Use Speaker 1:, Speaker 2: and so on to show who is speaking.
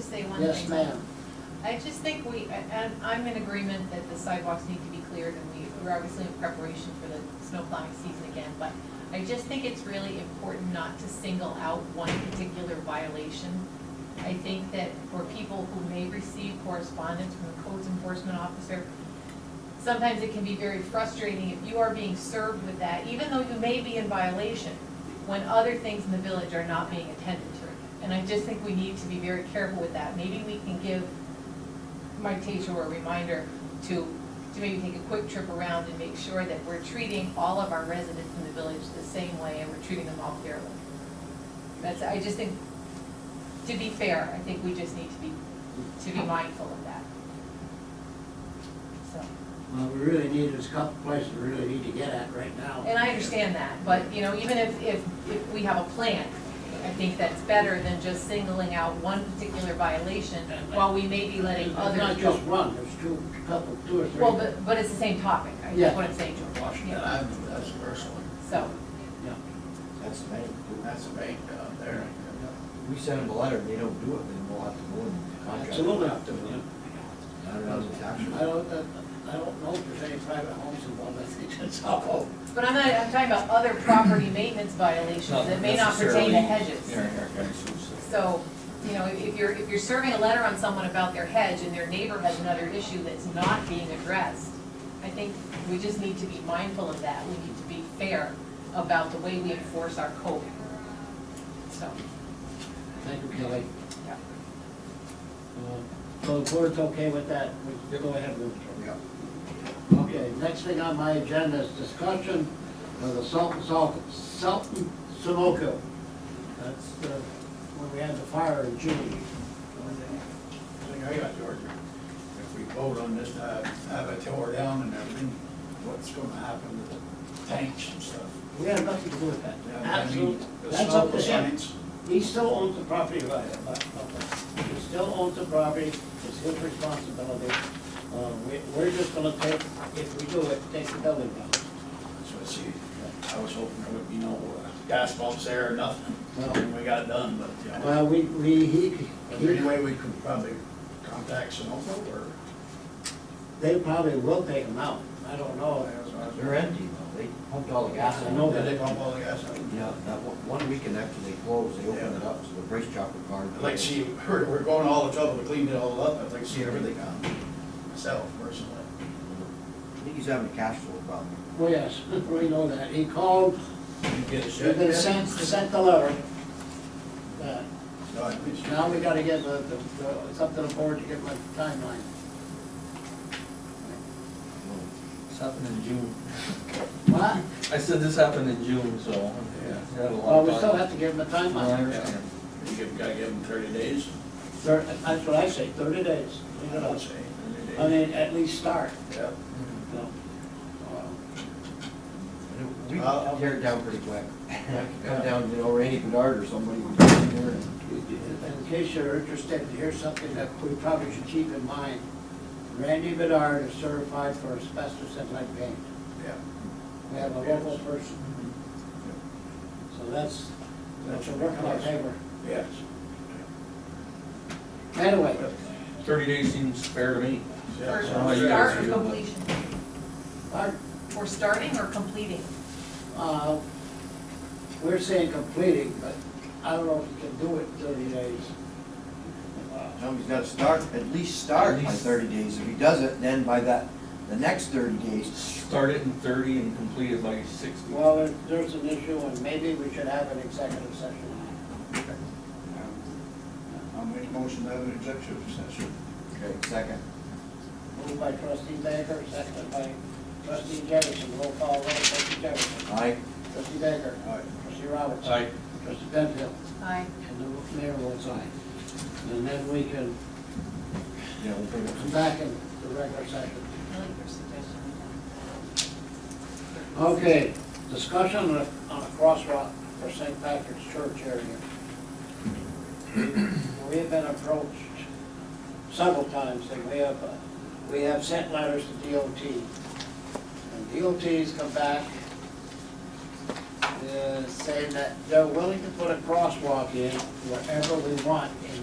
Speaker 1: say one thing?
Speaker 2: Yes, ma'am.
Speaker 1: I just think we, and I'm in agreement that the sidewalks need to be cleared, and we, we're obviously in preparation for the snow plowing season again, but I just think it's really important not to single out one particular violation. I think that for people who may receive correspondence from the codes enforcement officer, sometimes it can be very frustrating if you are being served with that, even though you may be in violation, when other things in the village are not being attended to. And I just think we need to be very careful with that. Maybe we can give Mike Tatro a reminder to, to maybe take a quick trip around and make sure that we're treating all of our residents in the village the same way and we're treating them all fairly. That's, I just think, to be fair, I think we just need to be, to be mindful of that. So.
Speaker 2: Well, we really need, there's a couple places we really need to get at right now.
Speaker 1: And I understand that, but, you know, even if, if, if we have a plan, I think that's better than just singling out one particular violation while we may be letting
Speaker 2: There's Not
Speaker 1: others
Speaker 2: just
Speaker 1: go.
Speaker 2: one, there's two, couple, two or three.
Speaker 1: Well, but, but it's the same topic, I
Speaker 2: Yeah.
Speaker 1: guess what I'm saying, George.
Speaker 3: Washington
Speaker 1: Yeah.
Speaker 3: Avenue, that's the first one.
Speaker 1: So,
Speaker 2: Yeah.
Speaker 3: That's the bank, that's the bank down there.
Speaker 4: We send them a letter, and they don't do it, then we'll have to go and contract.
Speaker 2: Absolutely.
Speaker 4: I don't know, if it's
Speaker 2: I
Speaker 4: actually,
Speaker 2: don't, I don't know if there's any private homes involved, I think that's all.
Speaker 1: but I'm not, I'm talking about other property maintenance violations that may not pertain to hedges. So, you know, if if you're, if you're serving a letter on someone about their hedge and their neighbor has another issue that's not being addressed, I think we just need to be mindful of that. We need to be fair about the way we enforce our code. So,
Speaker 2: Thank you, Kelly.
Speaker 1: yeah.
Speaker 2: Uh, So the board's okay with that? We Go ahead with it.
Speaker 3: Yeah.
Speaker 2: Okay, next thing on my agenda is discussion of the Sultan, Sultan, Sultan Sunoco. That's the, when we had the fire in June.
Speaker 3: Thing I got, George, if we vote on this, uh, have it tore down and everything, what's gonna happen to the tanks and stuff?
Speaker 2: We had nothing to do with that.
Speaker 3: Yeah, I mean,
Speaker 2: Absolutely.
Speaker 3: the
Speaker 2: That's up to
Speaker 3: salt
Speaker 2: him.
Speaker 3: signs.
Speaker 2: He still owns the property, right? uh, uh, He still owns the property, it's his responsibility. Uh, we, we're just gonna take, if we do it, take the building down.
Speaker 3: So I see, I was hoping there would be no uh, gas pumps there or nothing, and we got it done, but, you know.
Speaker 2: Well, we, we, he,
Speaker 3: Is there
Speaker 2: he,
Speaker 3: any way we could probably contact Sunoco or?
Speaker 2: they probably will take him out. I don't know.
Speaker 4: they're empty, though, they pumped all the gas
Speaker 2: I
Speaker 4: in.
Speaker 2: know
Speaker 3: Did they pump all the gas out?
Speaker 4: Yeah, that one, one weekend after they closed, they opened it up, so the brace chopper car.
Speaker 3: I'd like to see, we're, we're going all the trouble to clean it all up, I'd like to see everything on myself personally.
Speaker 4: I think he's having a cash flow problem.
Speaker 2: Well, Oh, yes, we know that. He called,
Speaker 3: You get a
Speaker 2: they
Speaker 3: shed?
Speaker 2: sent, sent the letter. Uh,
Speaker 3: No, I think-
Speaker 2: Now we gotta get the, the, the- it's up to the board to get my timeline.
Speaker 5: This happened in June.
Speaker 2: What?
Speaker 5: I said this happened in June, so.
Speaker 3: Yeah.
Speaker 5: we had a lot
Speaker 2: Well,
Speaker 5: of
Speaker 2: Uh, we still
Speaker 5: time.
Speaker 2: have to give him a
Speaker 5: No, I
Speaker 2: timeline.
Speaker 5: understand.
Speaker 3: You give- gotta give them thirty days?
Speaker 2: Thir- That's what I say, thirty days. You
Speaker 3: I
Speaker 2: know,
Speaker 3: would say 30 days.
Speaker 2: I mean, at least start,
Speaker 3: Yeah.
Speaker 2: you know. Uh,
Speaker 4: And it- We
Speaker 3: I'll- I'll-
Speaker 4: tear it down pretty quick. Come down, you know, Randy Bedard or somebody would come in there and.
Speaker 2: In case you're interested, here's something that we probably should keep in mind. Randy Bedard is certified for asbestos and lead paint.
Speaker 3: Yeah.
Speaker 2: We have a local person, so that's, that's a work in our favor.
Speaker 3: Yes.
Speaker 2: Anyway,
Speaker 5: Thirty days seems fair to me.
Speaker 3: Yeah,
Speaker 1: Or
Speaker 3: so
Speaker 5: how you
Speaker 1: start
Speaker 5: guys
Speaker 1: or
Speaker 5: feel about-
Speaker 1: completion,
Speaker 2: our,
Speaker 1: or starting or completing.
Speaker 2: uh, we're saying completing, but I don't know if you can do it in thirty days.
Speaker 4: No, he's gotta start, at least start by thirty days. If he does it, then by that, the next thirty days,
Speaker 5: Start it in thirty and complete it by sixty.
Speaker 2: Well, there- there's an issue, and maybe we should have an executive session.
Speaker 3: I'll make a motion to have an executive session.
Speaker 4: okay, second.
Speaker 2: Moved by trustee Baker, seconded by trustee Jefferson, roll call, roll, trustee Jefferson.
Speaker 4: Aye.
Speaker 2: Trustee Baker.
Speaker 3: Aye.
Speaker 2: Trustee Roberts.
Speaker 5: Aye.
Speaker 2: Trustee Penfield.
Speaker 1: Aye.
Speaker 2: And the mayor votes aye. And then we can
Speaker 4: Yeah, we'll bring it
Speaker 2: come back in the regular session.
Speaker 1: I like your suggestion.
Speaker 2: Okay, discussion on a on a crosswalk for St. Patrick's Church area. We have been approached several times, and we have, uh, we have sent letters to DOT. And DOT's come back uh, saying that they're willing to put a crosswalk in wherever we want in